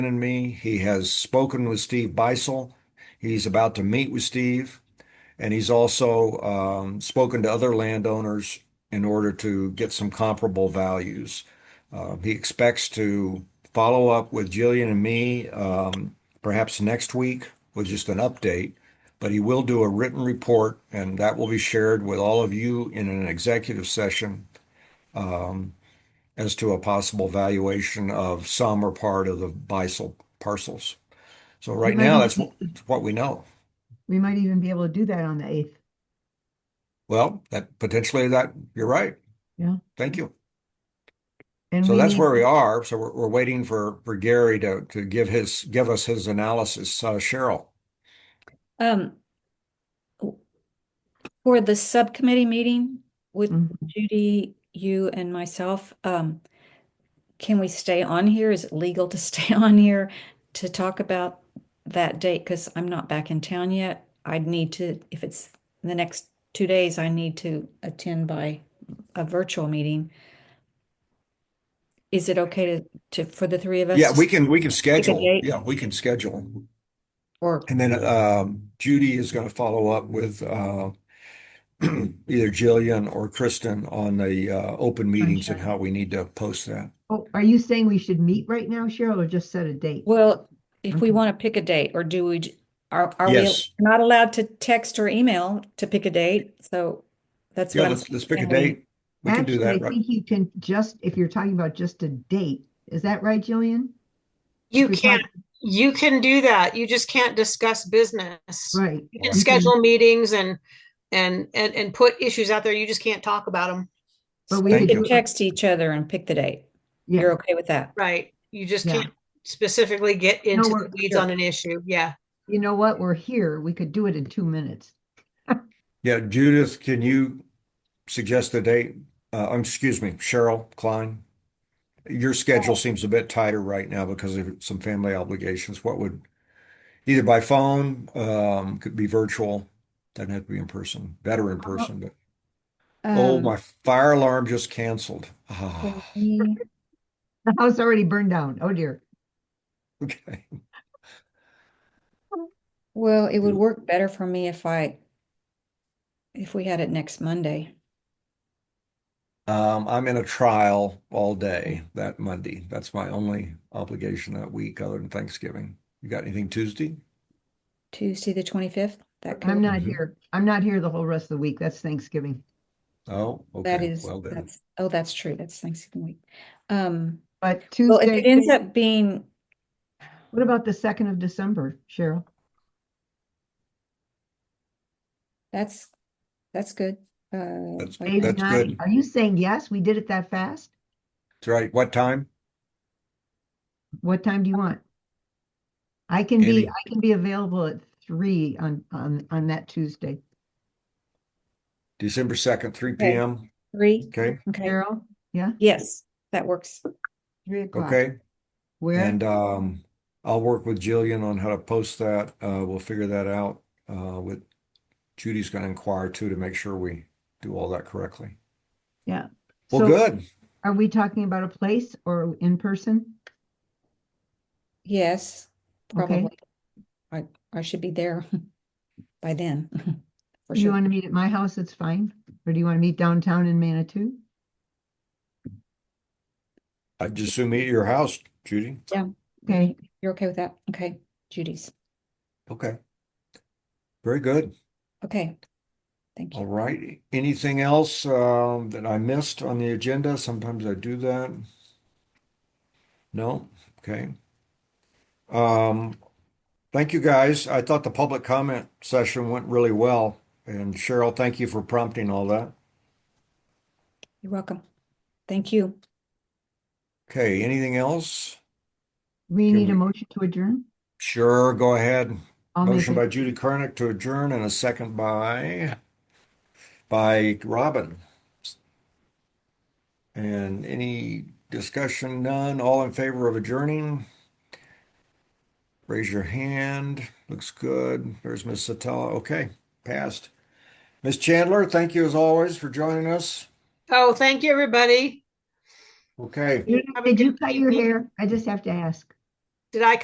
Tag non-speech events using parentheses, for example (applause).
and me. He has spoken with Steve Beisel. He's about to meet with Steve, and he's also um, spoken to other landowners in order to get some comparable values. Uh, he expects to follow up with Jillian and me um, perhaps next week with just an update, but he will do a written report, and that will be shared with all of you in an executive session um, as to a possible valuation of some or part of the Bisel parcels. So right might now, even- that's what, what we know. We might even be able to do that on the eighth. Well, that potentially that, you're right. Yeah. Thank you. And So we that's need- where we are. So we're, we're waiting for, for Gary to, to give his, give us his analysis. Uh, Cheryl, Um, for the subcommittee meeting with Mhm. Judy, you and myself, um, can we stay on here? Is it legal to (laughs) stay on here to talk about that date? Because I'm not back in town yet. I'd need to, if it's the next two days, I need to attend by a virtual meeting. Is it okay to, to, for the three of us? yeah, to we can, we can schedule. date. Yeah, we can schedule. Or, And then, um, Judy is going to follow up with, uh, (clears throat) either Jillian or Kristen on the, uh, open meetings and Sunshine. how we need to post that. Oh, are you saying we should meet right now, Cheryl, or just set a date? well, if we Okay. want to pick a date, or do we, j- are, are we Mm-hmm. Yes. not allowed to text or email to pick a date? So that's Yeah, what I'm. let's, let's pick a saying we- date. We can do Actually, that, I right? think you can just, if you're talking about just a date, is that right, Jillian? You If you're can, talking- you can do that. You just can't discuss business. Right. Mm-hmm. You You can can- schedule meetings and, and, and, and put issues out there. You just can't talk about them. But we Thank We could you. do, could it- text each other and pick the date. You're yeah, okay with that? Right. You just Yeah. can't specifically get into we're- the weeds on an issue. Yeah. you know what? We're here. We could do it in two minutes. (laughs) Yeah, Judith, can you suggest the date? Uh, um, excuse me, Cheryl Klein? Your Oh. schedule seems a bit tighter right now because of some family obligations. What would, either by phone, um, could be virtual, doesn't have to be in person, better in person, but, oh, Uh, Um, my fire alarm just canceled. Ah, (laughs) can we- The house already burned down. Oh dear. okay. Well, it would Mm. work better for me if I, if we had it next Monday. Um, I'm in a trial all day that Monday. That's my only obligation that week other than Thanksgiving. You got anything Tuesday? Tuesday, the twenty-fifth, that could, I'm not Mhm. here. I'm not here the whole rest of the week. That's Thanksgiving. Oh, that okay. is, Well then. that's, oh, that's true. That's Thanksgiving week. Um, But well, if it ends Tuesday, up being, what about the second of December, Cheryl? that's, that's good. Uh, That's- like- Maybe That's not. good. Are you saying yes? We did it that fast? That's right. What time? What time do you want? I can be, Andy. I can be available at three on, on, on that Tuesday. December 2nd, 3 Okay. p.m. Three, Okay. okay, Carol, yeah, yes, that works. three o'clock. Okay. Where, And um, I'll work with Jillian on how to post that. Uh, we'll figure that out. Uh, with Judy's going to inquire too to make sure we do all that correctly. yeah. Well, So good. Are we talking about a place or in person? Yes, Okay. probably. I, I should be there (laughs) by then. (laughs) for Do you sure. want to meet at my house? It's fine. Or do you want to meet downtown in Manitou? I just assume meet at your house, Judy. Okay, You're okay with that? Okay, Judy's. Okay. Very good. Okay. Thank All you. right. Anything else um, that I missed on the agenda? Sometimes I do that. No? Okay. Um, thank you guys. I thought the public comment session went really well. And Cheryl, thank you for prompting all that. You're welcome. Thank you. Okay, anything else? we Can need a we- motion to adjourn. Sure, go ahead. I'll make Motion by it. Judy Karnick to adjourn and a second by by Robin. And any discussion? None. All in favor of adjourning? Raise your hand. Looks good. There's Miss Satella. Okay, passed. Miss Chandler, thank you as always for joining us. Oh, thank you, everybody. Okay. Did Have a did good you cut your evening. hair? I just have to ask. Did I